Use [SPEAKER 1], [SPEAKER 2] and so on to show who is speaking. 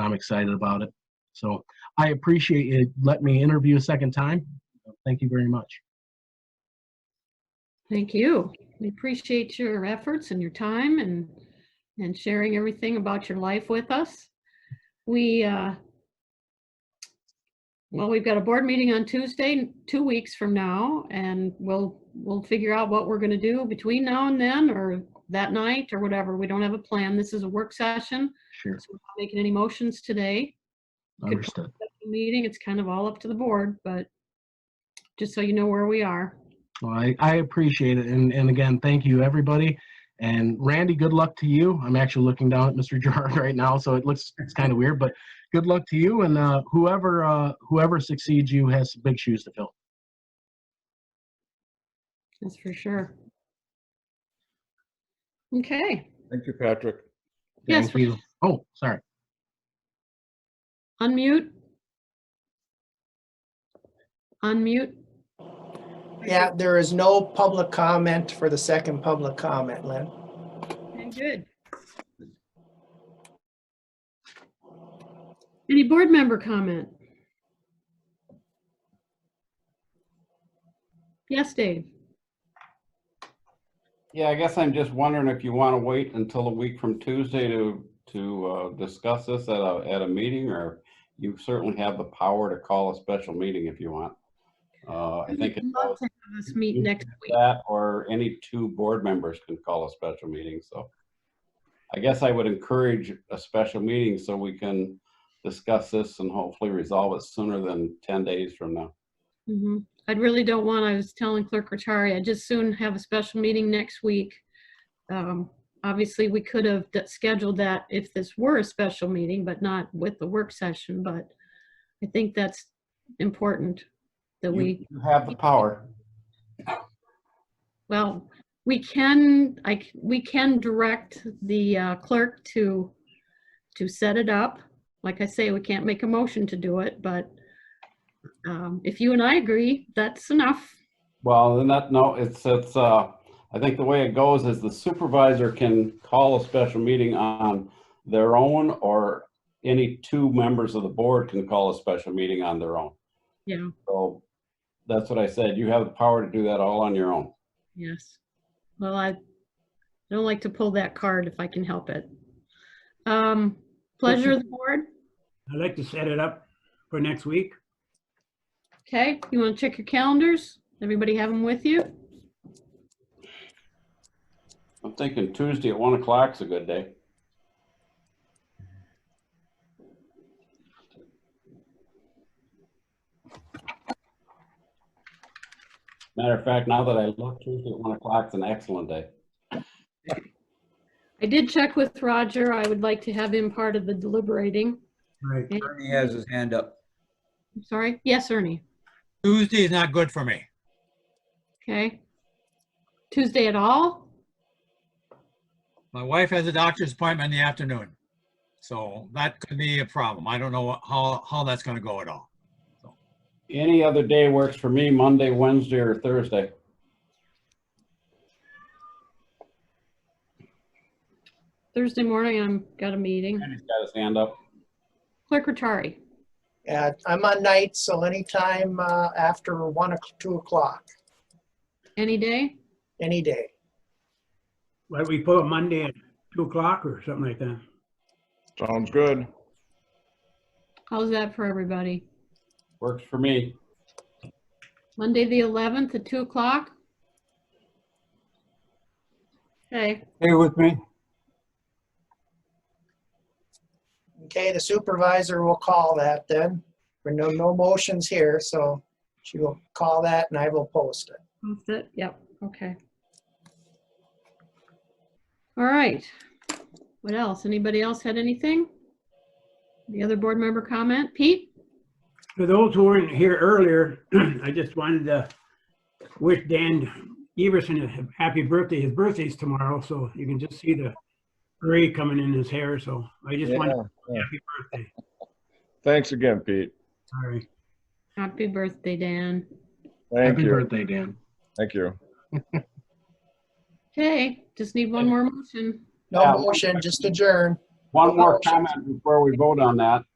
[SPEAKER 1] I'm excited about it. So I appreciate you letting me interview a second time. Thank you very much.
[SPEAKER 2] Thank you. We appreciate your efforts and your time and, and sharing everything about your life with us. We, uh, well, we've got a board meeting on Tuesday, two weeks from now, and we'll, we'll figure out what we're going to do between now and then or that night or whatever. We don't have a plan. This is a work session,
[SPEAKER 1] Sure,
[SPEAKER 2] so we're not making any motions today.
[SPEAKER 1] understood.
[SPEAKER 2] Meeting, it's kind of all up to the board, but just so you know where we are.
[SPEAKER 1] Well, I, I appreciate it. And, and again, thank you, everybody. And Randy, good luck to you. I'm actually looking down at Mr. Gerard right now, so it looks, it's kind of weird, but good luck to you and uh, whoever, uh, whoever succeeds you has big shoes to fill.
[SPEAKER 2] That's for sure. Okay,
[SPEAKER 3] Thank you, Patrick.
[SPEAKER 2] Yes,
[SPEAKER 1] Thank you. Oh, sorry.
[SPEAKER 2] unmute. Unmute.
[SPEAKER 4] Yeah, there is no public comment for the second public comment, Lynn.
[SPEAKER 2] Okay, Good. Any board member comment? Yes, Dave.
[SPEAKER 5] Yeah, I guess I'm just wondering if you want to wait until a week from Tuesday to, to uh, discuss this at a, at a meeting, or you certainly have the power to call a special meeting if you want. Uh, I think it's
[SPEAKER 2] We'd love to have This meet next week.
[SPEAKER 5] that, or any two board members can call a special meeting, so. I guess I would encourage a special meeting so we can discuss this and hopefully resolve it sooner than 10 days from now.
[SPEAKER 2] Mhm. I really don't want, I was telling Clerk Rattari, I'd just soon have a special meeting next week. Um, Obviously, we could have d- scheduled that if this were a special meeting, but not with the work session, but I think that's important that
[SPEAKER 5] You-
[SPEAKER 2] we,
[SPEAKER 5] You have the power.
[SPEAKER 2] well, we can, I, c- we can direct the uh, clerk to, to set it up. Like I say, we can't make a motion to do it, but um, if you and I agree, that's enough.
[SPEAKER 5] Well, then that, no, it's, it's, uh, I think the way it goes is the supervisor can call a special meeting on their own or any two members of the board can call a special meeting on their own.
[SPEAKER 2] Yeah.
[SPEAKER 5] So that's what I said. You have the power to do that all on your own.
[SPEAKER 2] Yes. Well, I don't like to pull that card if I can help it. Um, Pleasure of the board.
[SPEAKER 6] I'd like to set it up for next week.
[SPEAKER 2] Okay, you want to check your calendars? Everybody have them with you?
[SPEAKER 5] I'm thinking Tuesday at one o'clock's a good day. Matter of fact, now that I look, Tuesday at one o'clock's an excellent day.
[SPEAKER 2] I did check with Roger. I would like to have him part of the deliberating.
[SPEAKER 6] Right.
[SPEAKER 3] Ernie has his hand up.
[SPEAKER 2] I'm sorry. Yes, Ernie.
[SPEAKER 7] Tuesday is not good for me.
[SPEAKER 2] Okay. Tuesday at all?
[SPEAKER 7] My wife has a doctor's appointment in the afternoon. So that could be a problem. I don't know what- how, how that's gonna go at all.
[SPEAKER 5] Any other day works for me, Monday, Wednesday, or Thursday.
[SPEAKER 2] Thursday morning, I'm got a meeting.
[SPEAKER 5] Randy's got his hand up.
[SPEAKER 2] Clerk Rattari.
[SPEAKER 4] Yeah, I'm on night, so anytime uh, after 1, o'c- 2 o'clock,
[SPEAKER 2] Any day?
[SPEAKER 4] any day.
[SPEAKER 6] Why don't we put it Monday at two o'clock or something like that?
[SPEAKER 3] Sounds good.
[SPEAKER 2] How's that for everybody?
[SPEAKER 5] Works for me.
[SPEAKER 2] Monday, the 11th at 2 o'clock? Okay,
[SPEAKER 7] Stay with me.
[SPEAKER 4] Okay, the supervisor will call that then. There are no, no motions here, so she will call that and I will post it.
[SPEAKER 2] that's it, yep, okay. All right. What else? Anybody else had anything? The other board member comment? Pete?
[SPEAKER 6] For those who weren't here earlier, I just wanted to wish Dan Everson a happy birthday. His birthday's tomorrow, so you can just see the gray coming in his hair, so I just wanted,
[SPEAKER 3] Yeah.
[SPEAKER 6] happy birthday.
[SPEAKER 3] Thanks again, Pete.
[SPEAKER 6] Sorry.
[SPEAKER 2] Happy birthday, Dan.
[SPEAKER 3] Thank
[SPEAKER 1] Happy
[SPEAKER 3] you.
[SPEAKER 1] birthday, Dan.
[SPEAKER 3] Thank you.
[SPEAKER 2] Okay, just need one more motion.
[SPEAKER 4] No motion, just adjourn.
[SPEAKER 5] One more comment before we vote on that.